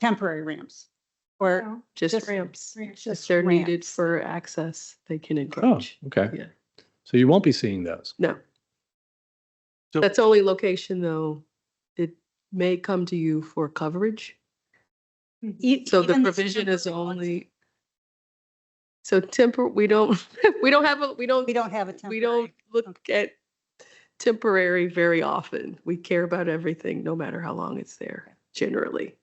temporary ramps or No, Oh, Just Just- ramps. If just they're needed ramps. for access, they can Oh, encroach. okay. Yeah. So you won't be seeing those. No, So that's the only location though. It may come to you for coverage. Mm-hmm. E- So the even provision is temporary ones, only. So temper, we don't, we don't have, a we don't, We don't have a temporary. we don't look at temporary very often. We care about everything, no matter how long it's there, generally.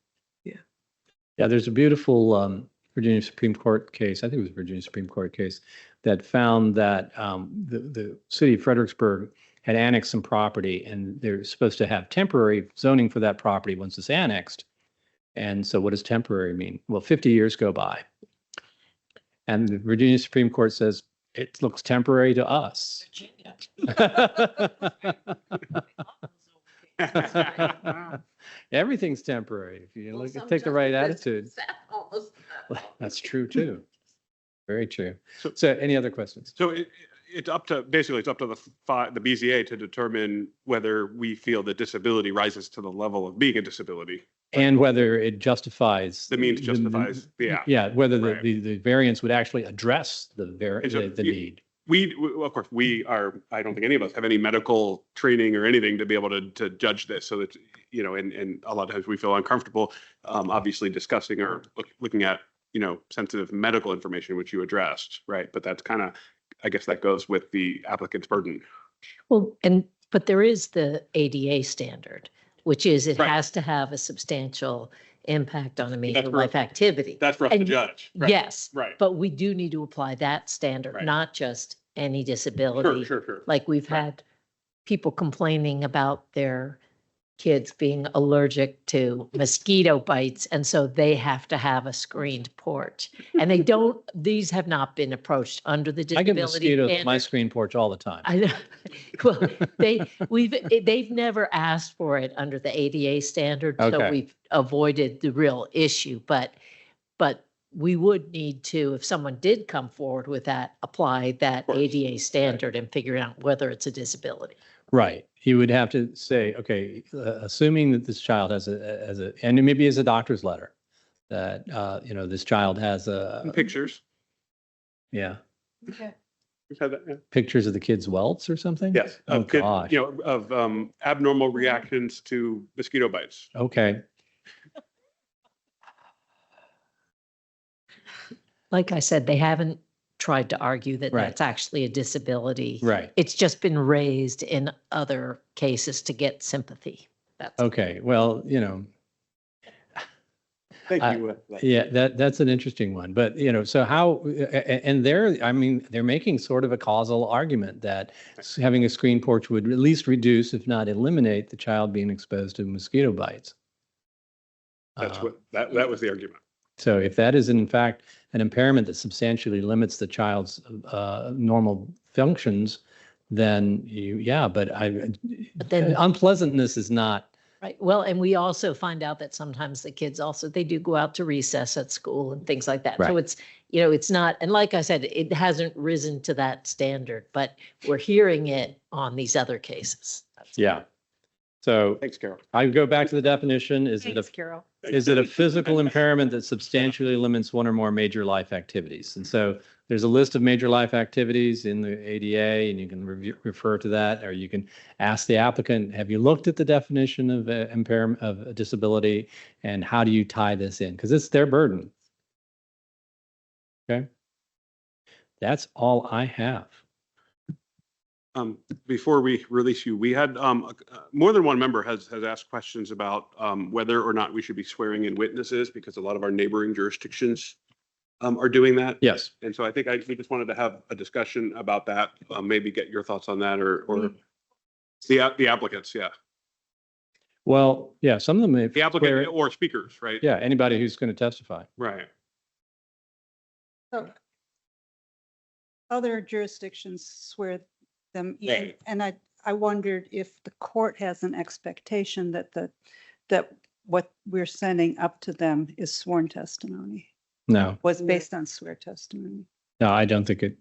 Yeah, there's a beautiful um, Virginia Supreme Court case. I think it was a Virginia Supreme Court case that found that um, the the city of Fredericksburg had annexed some property, and they're supposed to have temporary zoning for that property once it's annexed. And so, what does temporary mean? Well, 50 years go by, and the Virginia Supreme Court says it looks temporary to us. Everything's temporary if you look, take the right attitude. That's true too. Very true. So- So any other questions? So it, it's up to, basically, it's up to the fi, the BZA to determine whether we feel that disability rises to the level of being a disability. And whether it justifies. The means justifies, yeah. Yeah, whether the, Right. the, the variance would actually address the ver, And so the the you- need. We, well, of course, we are, I don't think any of us have any medical training or anything to be able to, to judge this. So that, you know, and, and a lot of times we feel uncomfortable, um, obviously discussing or look- looking at, you know, sensitive medical information, which you addressed, right? But that's kind of, I guess that goes with the applicant's burden. Well, and, but there is the ADA standard, which is it Right. has to have a substantial impact on a major for- life activity. That's for us to And- judge. right? Yes, Right. but we do need to apply that standard, Right. not just any Sure, disability. sure, sure. Like we've Right. had people complaining about their kids being allergic to mosquito bites. And so they have to have a screened porch. And they don't, these have not been approached under the I get disability. mosquitoes at my standard. screen porch all the time. I know. Well, they, we've, eh, they've never asked for it under the ADA standard, Okay. so we've avoided the real issue, but, but we would need to, if someone did come forward with that, apply that course. ADA standard and figure out whether it's a disability. Right. You would have to say, okay, uh, assuming that this child has a, as a, and maybe as a doctor's letter, that, uh, you know, this child has a, And Pictures. yeah, We've had that, yeah. pictures of the kid's welts or something? Yes, Oh, of, kid- gosh. you know, of um, abnormal reactions to mosquito bites. Okay. Like I said, they haven't tried to argue that Right. that's actually a disability. Right. It's just been raised in other cases to get sympathy. That's Okay. Well, you know, Thank Uh, you. uh, Yeah, that that's an interesting one. But you know, so how a- a- and they're I mean they're making sort of a causal argument that s- having a screen porch would at least reduce, if not eliminate, the child being exposed to mosquito bites. That's Uh, what, that, that was the argument. So if that is in fact an impairment that substantially limits the child's uh, normal functions, then you yeah. But I But then- unpleasantness is not Right. Well, and we also find out that sometimes the kids also, they do go out to recess at school and things like that. Right. So it's, you know, it's not, and like I said, it hasn't risen to that standard, but we're hearing it on these other cases. That's- yeah. So Thanks, Carol. I go back to the definition. Is it a Thanks, Carol. Is it a physical impairment that substantially limits one or more major life activities? And so there's a list of major life activities in the ADA and you can review, refer to that, or you can ask the applicant, have you looked at the definition of uh, impairment of a disability? And how do you tie this in? Because it's their burden. Okay. That's all I have. Um, before we release you, we had, um, uh, more than one member has, has asked questions about, um, whether or not we should be swearing in witnesses because a lot of our neighboring jurisdictions, um, are doing that. Yes. And so I think I, we just wanted to have a discussion about that, uh, maybe get your thoughts on that or, or the, app- the applicants, yeah. Well, yeah, some of them. if- The applicant or speakers, right? Yeah, anybody who's going to testify. Right. Other jurisdictions swear them in. Right. And I, I wondered if the court has an expectation that the, that what we're sending up to them is sworn testimony, No, was Yeah. based on swear testimony. no, I don't think it,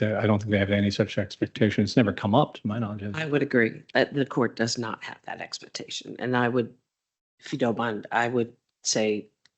I don't think they have any such expectation. It's never come up to my knowledge. has it? I would agree. Uh, The court does not have that expectation. And I would, if you don't mind, I would say